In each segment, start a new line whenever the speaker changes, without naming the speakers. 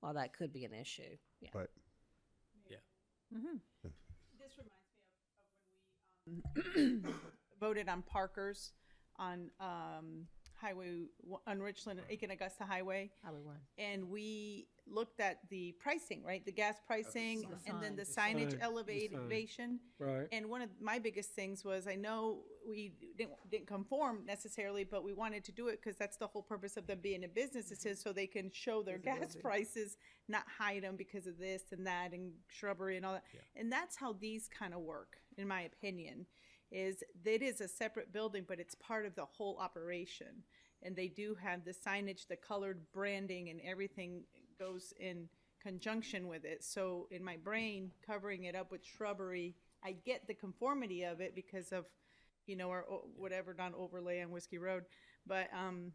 while that could be an issue. Yeah.
Right.
This reminds me of, of when we um, voted on Parkers on um, Highway, on Richland, Aiken Augusta Highway.
Highway one.
And we looked at the pricing, right? The gas pricing and then the
Sign,
signage
the sign.
elevation.
Right.
And one of my biggest things was, I know we didn't, didn't conform necessarily, but we wanted to do it because that's the whole purpose of them being a business, is to- so they can show their gas prices, not hide them because of this and that and shrubbery and all that. And that's how these kind of work, in my opinion, is that it is a separate building, but it's part of the whole operation. And they do have the signage, the colored branding and everything goes in conjunction with it. So in my brain, covering it up with shrubbery, I get the conformity of it because of, you know, or o- whatever non overlay on Whiskey Road, but um,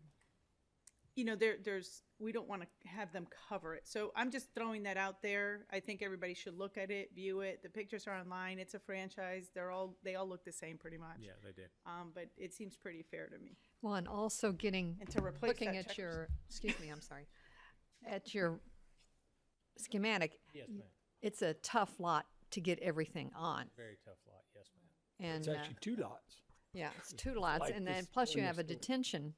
you know, there there's we don't want to have them cover it. So I'm just throwing that out there. I think everybody should look at it, view it. The pictures are online. It's a franchise. They're all they all look the same pretty much.
Yeah, they did.
Um, but it seems pretty fair to me.
Well, and also getting,
And to replace
looking
that
at
checkers-
your, excuse me, I'm sorry, at your schematic,
Yes, ma'am.
it's a tough lot to get everything on.
Very tough lot. Yes, ma'am.
And,
It's
uh,
actually two lots.
yeah, it's two lots,
like
and then
this
plus you
one
have a
next door.
detention.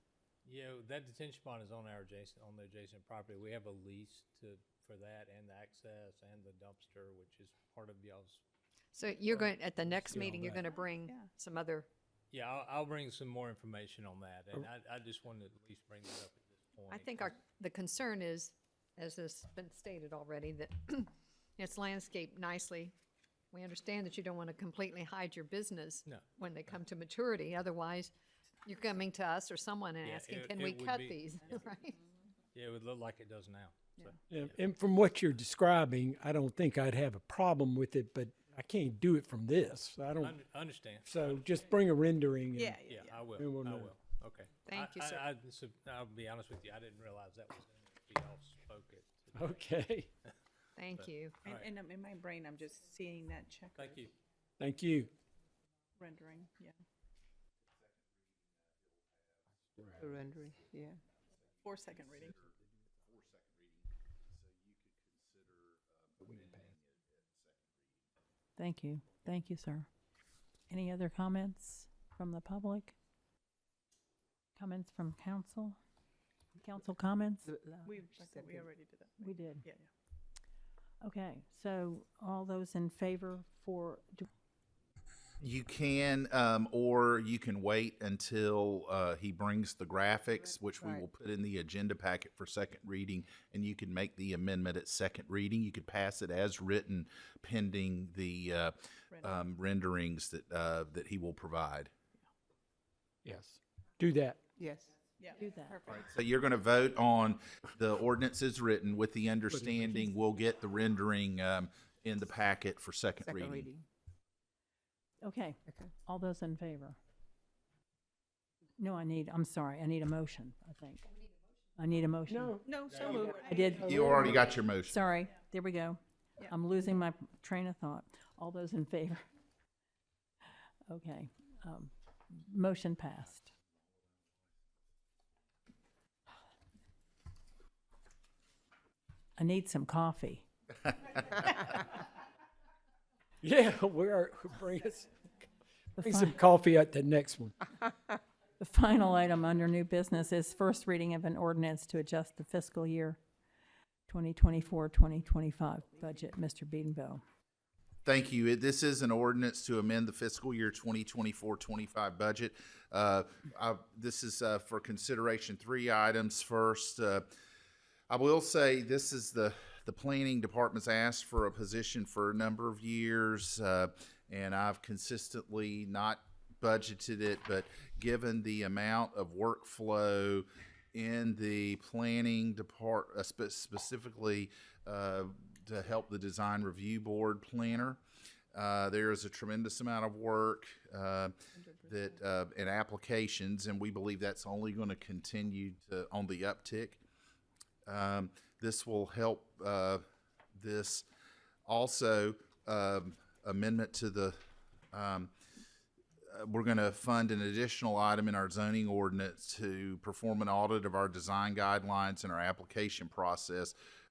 Yeah, that detention pond is on our adjacent, on the adjacent property. We have a lease to, for that and the access and the dumpster, which is part of y'all's.
So you're going, at the next
get all
meeting, you're
that.
gonna bring
Yeah.
some other,
Yeah, I'll, I'll bring some more information on that, and I, I just wanted to at least bring that up at this point.
Oh. I think our, the concern is, as has been stated already, that it's landscaped nicely. We understand that you don't wanna completely hide your business.
No,
When they come to maturity, otherwise you're coming to us or someone and
Yeah,
asking,
it-
can
it
we
would
cut
be-
these, right?
Yeah, it would look like it does now, so.
And, and from what you're describing, I don't think I'd have a problem with it, but I can't do it from this. I don't,
Un- Understand.
so just bring a rendering. and-
Yeah, yeah,
Yeah,
yeah.
I will, I
We will know.
will, okay. I-
Thank you,
I-
sir.
I, so I'll be honest with you, I didn't realize that was gonna be all spoken. today.
Okay,
Thank you.
And,
Alright.
and um, in my brain, I'm just seeing that check
Thank you.
thank you.
rendering. Yeah,
Rendering. Yeah.
four second reading.
Thank you. Thank you, sir. Any other comments from the public? Comments from council? Council comments?
We I thought we already did that.
We did.
Yeah, yeah.
Okay, so all those in favor for, do-
You can, um, or you can wait until uh, he brings the graphics, which we will put in the agenda packet for second reading, and you can make the amendment at second reading. You could pass it as written, pending the uh, um, renderings that uh, that he will provide.
Yes, do that.
Yes.
Yeah.
do that.
Perfect.
So you're going to vote on the ordinance as written, with the understanding we'll get the rendering um, in the packet for second,
Second
reading.
reading.
Okay,
Okay.
all those in favor? No, I need, I'm sorry, I need a motion, I think. I need a motion.
No,
No, so moved.
I did.
You already got your motion.
Sorry, there we go. I'm losing my train of thought. All those in favor? Okay, um, motion passed. I need some coffee.
yeah, we're, bring us,
The
bring
fi-
some coffee at the next one.
The final item under new business is first reading of an ordinance to adjust the fiscal year 2024, 2025 budget. Mr. Beedenbow.
Thank you. It- This is an ordinance to amend the fiscal year 2024-25 budget. Uh, I- This is uh, for consideration, three items. First, uh, I will say this is the, the planning department's asked for a position for a number of years, uh, and I've consistently not budgeted it, but given the amount of workflow in the planning depart, uh, spe- specifically, uh, to help the design review board planner, uh, there is a tremendous amount of work uh, that uh, and applications, and we believe that's only going to continue to, on the uptick. Um, this will help uh, this also um, amendment to the. Um, uh, we're going to fund an additional item in our zoning ordinance to perform an audit of our design guidelines and our application process